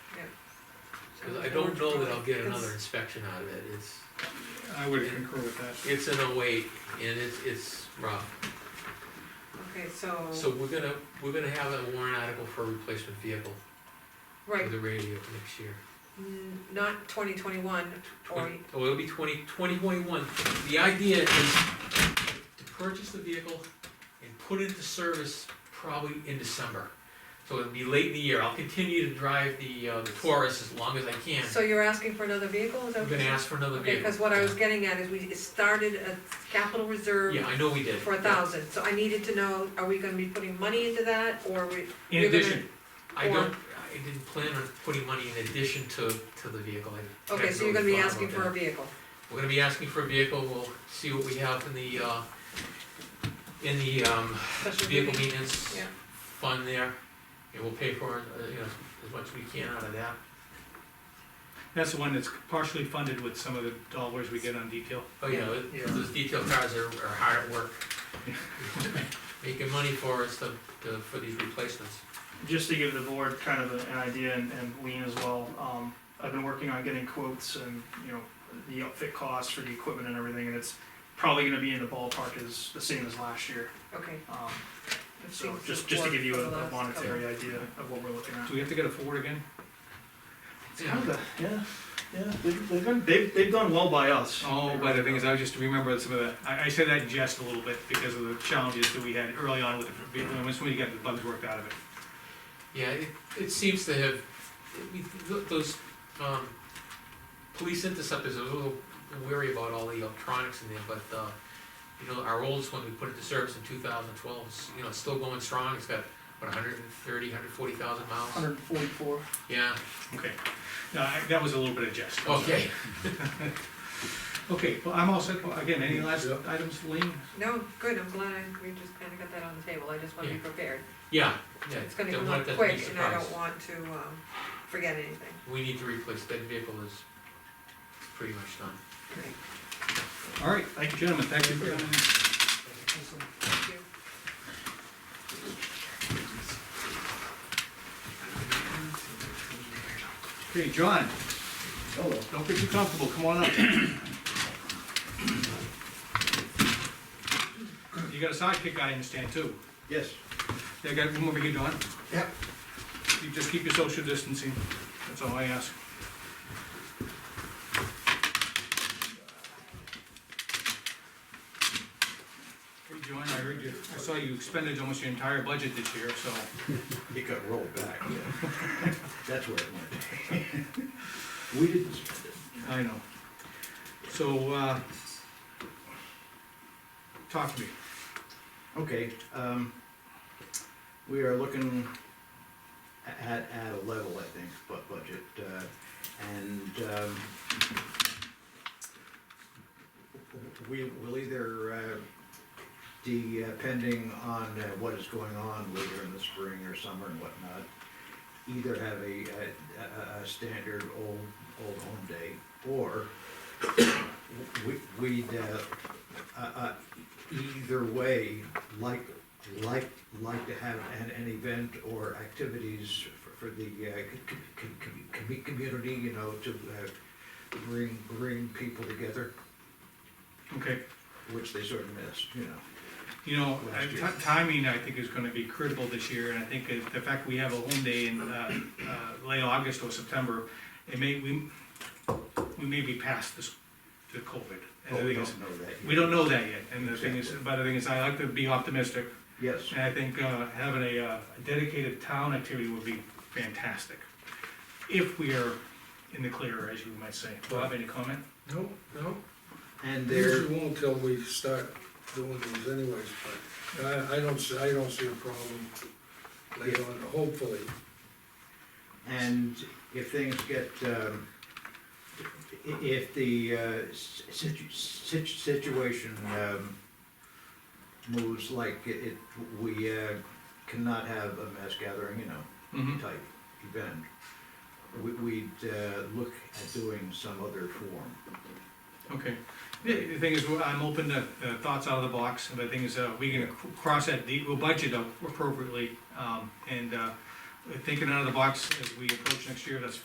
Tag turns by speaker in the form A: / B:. A: Cause I don't know that I'll get another inspection out of it, it's,
B: I would concur with that.
A: it's an oh eight, and it's, it's rough.
C: Okay, so,
A: So we're gonna, we're gonna have a warrant article for a replacement vehicle for
C: right,
A: the radio next year.
C: n- not twenty twenty-one, or,
A: Twen- Oh, it'll be twenty, twenty twenty-one. The idea is to purchase the vehicle and put it into service probably in December. So it'll be late in the year. I'll continue to drive the, uh, the Taurus as long as I can.
C: so you're asking for another vehicle, is that
A: I'm
C: what you're
A: gonna
C: saying?
A: ask for another
C: Okay,
A: vehicle.
C: cause what I was getting at is we started a capital reserve
A: Yeah, I know we did.
C: for a thousand, so I needed to know, are we gonna be putting money into that, or we,
A: In
C: You're gonna-
A: addition, I
C: or-
A: don't, I didn't plan on putting money in addition to, to the vehicle. I- I
C: okay, so you're
A: really
C: gonna be
A: thought
C: asking
A: about
C: for
A: that.
C: a vehicle.
A: We're gonna be asking for a vehicle, we'll see what we have in the, uh, in the, um,
C: Special
A: vehicle
C: duty.
A: maintenance
C: Yeah.
A: fund there, and we'll pay for it, uh, you know, as much as we can out of that.
B: That's the one that's partially funded with some of the dollars we get on detail.
A: Oh, yeah, it-
D: Yeah.
A: those detail cars are, are hard at work. Making money for us to, to, for these replacements.
D: Just to give the board kind of an idea and, and Lean as well, um, I've been working on getting quotes and, you know, the outfit costs for the equipment and everything, and it's probably gonna be in the ballpark as, the same as last year.
C: Okay.
D: Um,
C: It
D: so
C: seems
D: just, just to give you
C: for
D: a
C: the
D: a
C: last
D: monetary idea of what we're looking at.
B: Do we have to get a forward again?
D: It's kind of a- yeah, yeah, they've, they've been, they've, they've done well by us.
B: Oh, but the thing is, I just remember some of the, I, I said that in jest a little bit because of the challenges that we had early on with the vehicle, and once we got the bugs worked out of it.
A: Yeah, it, it seems to have, it- we- th- those, um, police interceptors, I was a little weary about all the electronics in there, but, uh, you know, our oldest one, we put into service in two thousand twelve, you know, it's still going strong, it's got, what, hundred and thirty, hundred forty thousand miles?
D: Hundred and forty-four.
A: Yeah,
B: Okay, no, I, that was a little bit of jest. I'm sorry.
A: okay.
B: Okay, well, I'm all set, Well, again, any last items, Lean?
C: No, good, I'm glad I, we just kinda got that on the table, I just wanna be
A: Yeah.
C: prepared.
A: Yeah, yeah.
C: It's gonna
A: don't
C: come
A: want
C: up
A: that to be
C: quick, and I
A: surprised.
C: don't want to, um, forget anything.
A: We need to replace, that vehicle is pretty much done.
B: All right, thank you, gentlemen, thank you for coming in.
C: Thank you.
B: Okay, John. Hello. Don't get too comfortable, come on up. You got a sidekick, I understand, too.
E: Yes.
B: Yeah, got one over here, John.
E: Yep.
B: You just keep your social distancing, that's all I ask. Hey, John, I heard you, I saw you expended almost your entire budget this year, so.
E: It got rolled back, yeah. That's where it went. We didn't spend it.
B: I know. So, uh, talk to me.
E: Okay, um, we are looking a- at, at a level, I think, but budget, uh, and, um, we will either, uh, depending on uh, what is going on later in the spring or summer and whatnot, either have a, a, a- a standard old, old home day, or we, we'd, uh, uh, uh, either way, like, like, like to have an, an event or activities for- for the, uh, c- c- c- com- community, you know, to, uh, bring, bring people together,
B: Okay,
E: which they sort of missed, you know.
B: you know,
E: Last
B: uh,
E: year.
B: ti- timing, I think, is gonna be critical this year, and I think that the fact we have a home day in, uh, uh, late August or September, it may, we, we may be past this, the COVID. And the
E: Oh, we
B: thing is,
E: don't know that yet.
B: we don't know that yet, and the thing is,
E: Exactly.
B: but the thing is, I like to be optimistic,
E: Yes,
B: and I think, uh, having a, uh, a dedicated town activity would be fantastic. If we are in the clear, as you might say. Bob, any comment?
F: No, no,
E: and there,
F: usually won't till we start doing these anyways, but I, I don't see, I don't see a problem later on, hopefully.
E: and if things get, um, i- if the, uh, situ- situ- situation, um, moves like it, it- we, uh, cannot have a mass gathering, you know,
B: Mm-hmm.
E: type event, we- we'd uh, look at doing some other form.
B: Okay, the, the thing is, well, I'm open to uh, thoughts out of the box, but the thing is, uh, we're gonna c- cross that, de- we'll budget up appropriately, um, and, uh, thinking out of the box as we approach next year, that's